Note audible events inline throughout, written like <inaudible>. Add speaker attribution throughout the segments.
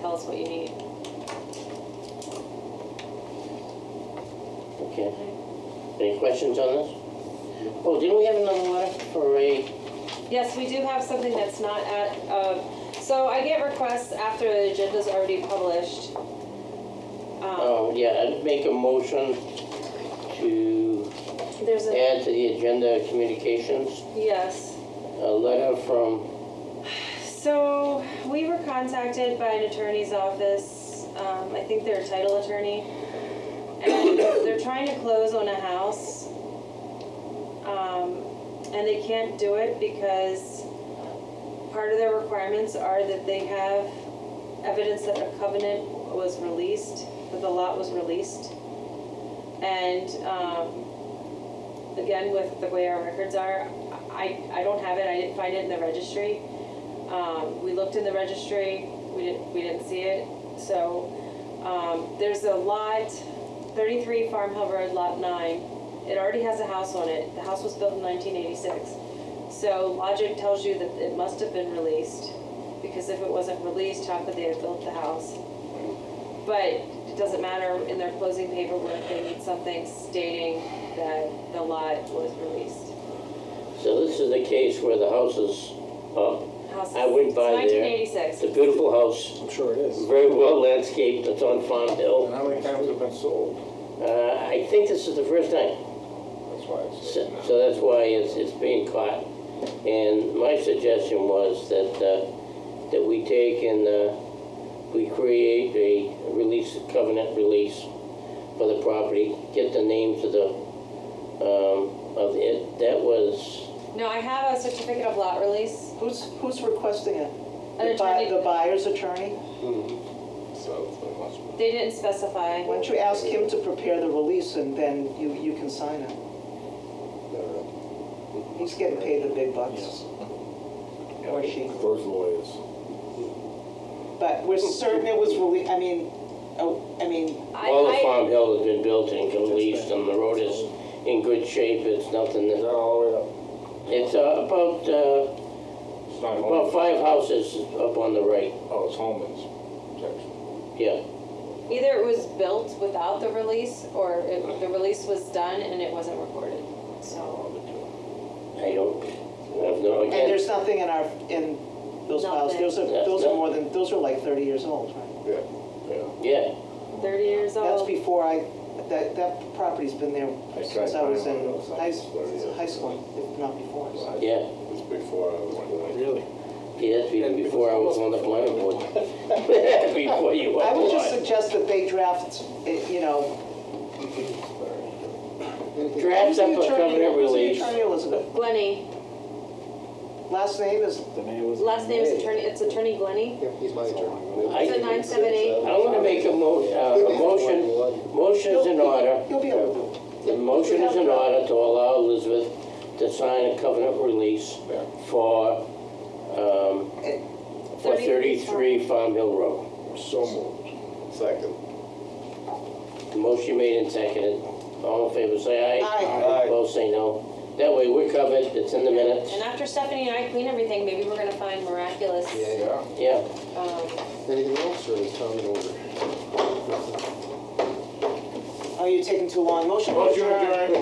Speaker 1: Tell us what you need.
Speaker 2: Okay. Any questions on this? Oh, didn't we have another letter for a,
Speaker 1: Yes, we do have something that's not at, um, so I get requests after the agenda's already published. Um,
Speaker 2: oh, yeah, I'd make a motion to
Speaker 1: There's a,
Speaker 2: add to the agenda communications,
Speaker 1: yes.
Speaker 2: a letter from,
Speaker 1: So we were contacted by an attorney's office, um, I think they're a title attorney. And they're trying to close on a house. Um, and they can't do it because part of their requirements are that they have evidence that a covenant was released, that the lot was released. And, um, again, with the way our records are, I, I don't have it, I didn't find it in the registry. Um, we looked in the registry, we didn't, we didn't see it, so, um, there's a lot, thirty-three Farm Hill Road, lot nine. It already has a house on it, the house was built in nineteen eighty-six. So logic tells you that it must have been released, because if it wasn't released, how could they have built the house? But it doesn't matter, in their closing paperwork, they need something stating that the lot was released.
Speaker 2: so this is the case where the house is up.
Speaker 1: House
Speaker 2: I went by there.
Speaker 1: Nineteen eighty-six.
Speaker 2: It's a beautiful house,
Speaker 3: I'm sure it is.
Speaker 2: very well landscaped, it's on Farm
Speaker 3: And
Speaker 2: Hill.
Speaker 3: how many times have been sold?
Speaker 2: Uh, I think this is the first time.
Speaker 3: That's why it's.
Speaker 2: So so that's why it's, it's being caught. And my suggestion was that, uh, that we take and, uh, we create a release, covenant release for the property, get the names of the, um, of it, that was,
Speaker 1: No, I have a certificate of lot release.
Speaker 4: Who's, who's requesting it?
Speaker 1: An
Speaker 4: The buy-
Speaker 1: attorney.
Speaker 4: The buyer's attorney?
Speaker 3: uh, So,
Speaker 1: They didn't specify.
Speaker 4: Why don't you ask him to prepare the release and then you, you can sign it? He's getting paid the big bucks. Or she.
Speaker 3: Those lawyers.
Speaker 4: But we're certain it was released, I mean, oh, I mean,
Speaker 1: I-
Speaker 2: all the
Speaker 1: I-
Speaker 2: Farm Hill has been built and leased and the road is in good shape, it's nothing,
Speaker 3: Not
Speaker 2: that-
Speaker 3: all the way up.
Speaker 2: it's uh, about, uh,
Speaker 3: It's not
Speaker 2: about
Speaker 3: Holman's.
Speaker 2: five houses up on the right,
Speaker 3: Oh, it's Holman's section.
Speaker 2: yeah.
Speaker 1: Either it was built without the release, or it- the release was done and it wasn't recorded. So,
Speaker 2: I don't, I have no,
Speaker 4: and
Speaker 2: again.
Speaker 4: there's nothing in our, in those files. Those are,
Speaker 2: Nothing.
Speaker 4: those are more than, those are like 30 years old, right?
Speaker 3: Yeah, yeah.
Speaker 2: Yeah,
Speaker 1: thirty years
Speaker 4: That's
Speaker 1: old.
Speaker 4: before I, that, that property's been there
Speaker 3: I tried
Speaker 4: since I was in
Speaker 3: buying one of those.
Speaker 4: high,
Speaker 3: Yeah.
Speaker 4: high school, if not before. so.
Speaker 2: yeah,
Speaker 3: It's before I was.
Speaker 5: Really?
Speaker 2: yeah, that's even before I was on the planning board. <laughs> Before you were
Speaker 4: I would just
Speaker 2: alive.
Speaker 4: suggest that they draft, eh, you know.
Speaker 2: Draft up a
Speaker 4: Who's the attorney-
Speaker 2: covenant
Speaker 4: who's the
Speaker 2: release.
Speaker 4: attorney, Elizabeth?
Speaker 1: Glenny,
Speaker 4: Last name is,
Speaker 5: The name was.
Speaker 1: last name is attorney, it's attorney Glenny.
Speaker 6: Yep, he's my attorney.
Speaker 2: I-
Speaker 1: It's a nine seven eight.
Speaker 2: I'm gonna make a mo, uh, a motion, motion's in order,
Speaker 4: you'll be able to do it.
Speaker 2: the motion is in order to allow Elizabeth to sign a covenant release for, um,
Speaker 4: Eh,
Speaker 2: for thirty-three Farm Hill Road.
Speaker 3: So moved. Second.
Speaker 2: The motion made and seconded, all in favor, say aye.
Speaker 4: Aye.
Speaker 3: Aye.
Speaker 2: Both say no, that way we're covered, it's in the minutes,
Speaker 1: And after Stephanie and I clean everything, maybe we're gonna find miraculous,
Speaker 6: Yeah.
Speaker 3: Yeah.
Speaker 2: yeah. <laughs>
Speaker 1: um,
Speaker 6: Anything else, or is Tom in order?
Speaker 4: Oh, you're taking too long. Motion to
Speaker 3: Motion
Speaker 4: adjourn.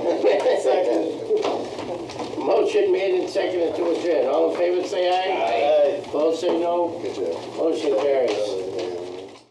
Speaker 2: <laughs> Motion made and seconded to adjourn. All in favor, say aye. Aye. Opposed, say no.
Speaker 6: Good job.
Speaker 2: Motion carried.